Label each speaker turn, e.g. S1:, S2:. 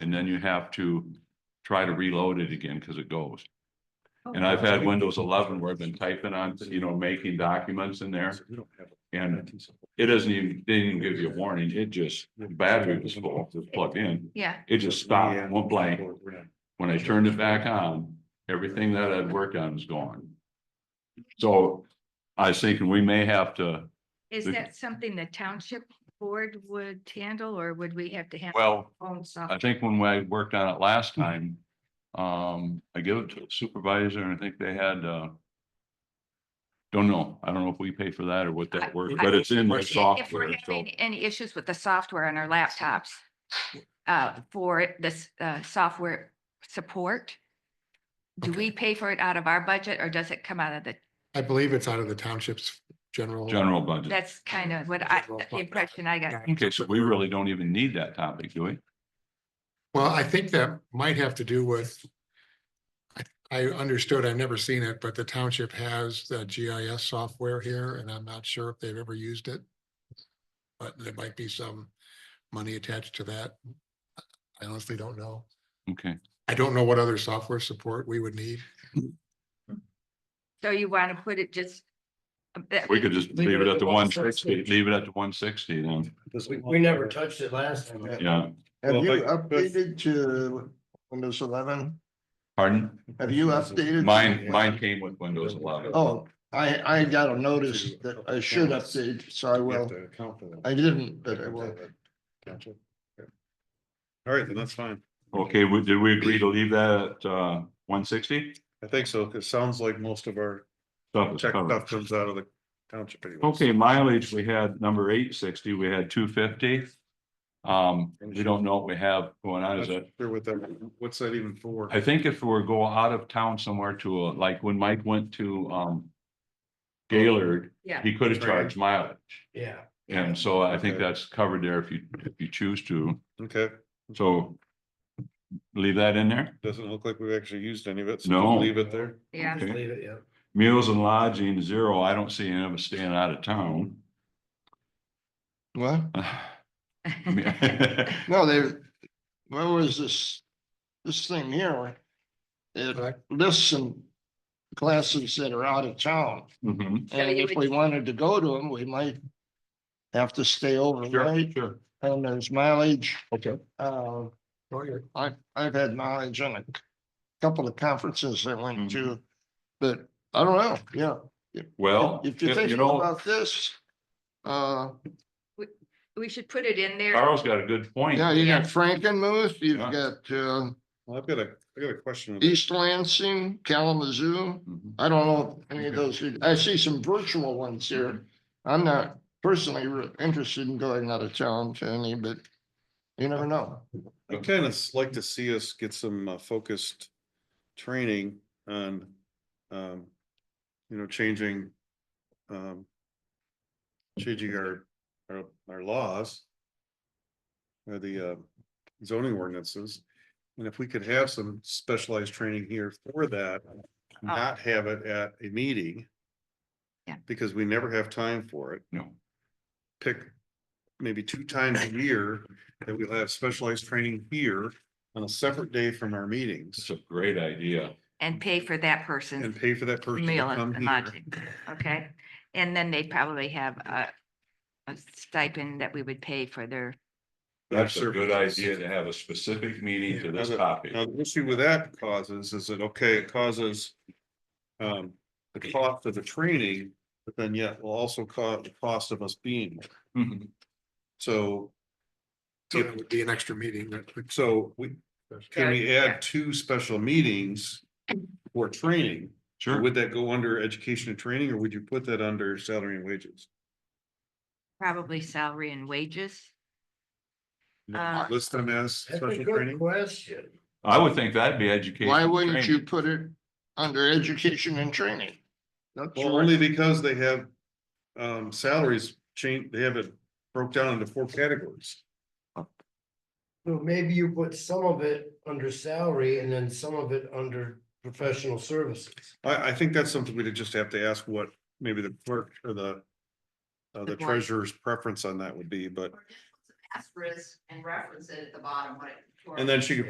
S1: and then you have to try to reload it again because it goes.
S2: Oh,
S1: And I've
S3: Okay.
S1: had Windows eleven where I've been typing on, you know, making documents in there
S3: We don't have a-
S1: and it doesn't even, they didn't give you a warning. It just, the battery was full, it was plugged in.
S2: Yeah,
S1: It just
S3: Yeah.
S1: stopped, went blank.
S3: We're not-
S1: When I turned it back on, everything that I'd worked on was gone. So I was thinking we may have to,
S2: is
S1: Mhm.
S2: that something the township board would handle or would we have to have? our
S1: well, uh,
S2: Own
S1: I
S2: software?
S1: think when I worked on it last time, um, I gave it to the supervisor and I think they had, uh, don't know. I don't know if we pay for that or what that worked, but it's in their
S3: If
S2: If
S1: software.
S2: we're
S1: So,
S2: having any issues with the software on our laptops, uh, for this, uh, software support, do we pay for it out of our budget or does it come out of the,
S4: I believe it's out of the township's general.
S1: general budget.
S2: that's kind of what I, the impression I got.
S1: Okay, so we really don't even need that topic, do we?
S4: Well, I think that might have to do with. I, I understood, I've never seen it, but the township has the GIS software here and I'm not sure if they've ever used it. But there might be some money attached to that. I honestly don't know.
S1: Okay,
S4: I don't know what other software support we would need.
S2: So you want to put it just. uh, that
S1: we could just
S5: Leave
S1: leave it at the one
S5: 160.
S1: sixty, leave it at the one sixty then,
S3: Because
S5: We, we never touched it last time.
S1: yeah,
S6: Have
S3: Well,
S6: you
S3: but- but-
S6: updated to Windows eleven?
S1: pardon?
S6: Have you updated?
S1: Mine, mine came with Windows eleven.
S6: Oh, I, I got a notice that I should update, so I
S3: We have
S6: will.
S3: to account for that.
S6: I didn't, but I will.
S3: Gotcha. Okay. All right, then that's fine.
S1: Okay, we, did we agree to leave that at, uh, one sixty?
S3: I think so, because it sounds like most of our
S1: Stuff is
S3: tech
S1: covered.
S3: stuff comes out of the township anyways.
S1: Okay, mileage, we had number eight sixty, we had two fifty. Um, we don't know what we have going on,
S3: Not
S1: is it?
S3: Sure what that, what's that even for?
S1: I think if we're go out of town somewhere to, uh, like when Mike went to, um, Gaylord,
S2: Yeah.
S1: he could have charged mileage.
S5: Yeah.
S1: And so I think
S3: Okay.
S1: that's covered there if you, if you choose to,
S6: Mm-hmm.
S3: Okay,
S1: so. Leave that in there.
S3: doesn't look like we've actually used any of it. so
S1: No.
S3: Leave it there.
S2: Yeah,
S5: Just leave it, yeah.
S1: Meals and lodging, zero. I don't see any of us staying out of town.
S6: What?
S1: Yeah,
S6: No, they, where was this, this thing here? It lists some classes that are out of town.
S1: Mhm.
S2: So
S6: And
S2: you
S6: if
S2: would-
S6: we wanted to go to them, we might have to stay
S1: Sure,
S6: overnight
S1: sure.
S6: and there's mileage.
S4: Okay.
S6: Uh,
S4: Oh, you're-
S6: I, I've had mileage on a couple of conferences I went
S1: Mm-hmm.
S6: to, but I don't know, yeah.
S1: Well,
S6: If you're
S1: if- you
S6: thinking
S1: know,
S6: about this, uh,
S2: we should put it in there.
S1: Carl's got a good point.
S6: yeah, you
S2: Yeah.
S6: got Frankenmuth, you've
S1: Yeah.
S6: got, uh,
S3: Well, I've got a, I got a question. with that.
S6: East Lansing, Kalamazoo.
S1: Mhm.
S6: I don't know if any of those, I see some virtual ones here. I'm not personally re- interested in going out of town to any, but you never know.
S3: I kind of like to see us get some uh, focused training on, um, you know, changing, um, changing our, our, our laws or the uh, zoning ordinances. And if we could have some specialized training here for that, not have it at a meeting.
S2: Yeah.
S3: Because we never have time for it
S1: No,
S3: pick maybe two times a year that we'll have specialized training here on a separate day from our
S1: it's
S3: meetings
S1: a great idea.
S2: And pay for that person.
S3: and pay for that person to
S2: meal
S3: come
S2: and
S3: here.
S2: lodging, okay? And then they probably have a, a stipend that we would pay for their,
S1: That's a
S3: services.
S1: good idea to have a specific meeting to this topic.
S3: Now, the issue with that causes is that, okay, it causes um, the cost of the training, but then yet will also cause the cost of us being. there.
S1: Mhm.
S3: So,
S4: So that would be an extra meeting. that would-
S3: so we, can we add two special meetings for training?
S1: Sure.
S3: Would that go under education and training or would you put that under salary and wages?
S2: probably salary and wages. Uh,
S3: List them as
S5: That's a
S3: special
S5: good
S3: training?
S5: question.
S1: I would think that'd be education.
S6: Why wouldn't you
S1: training.
S6: put it under education and training? That's
S3: Well,
S6: what-
S3: only because they have um salaries change, they have it broke down into four categories.
S5: So maybe you put some of it under salary and then some of it under professional services.
S3: I I think that's something we'd just have to ask what maybe the clerk or the uh, the
S2: board.
S3: treasurer's preference on that would be, but
S7: Asterisk and reference it at the bottom, what it,
S3: And then she could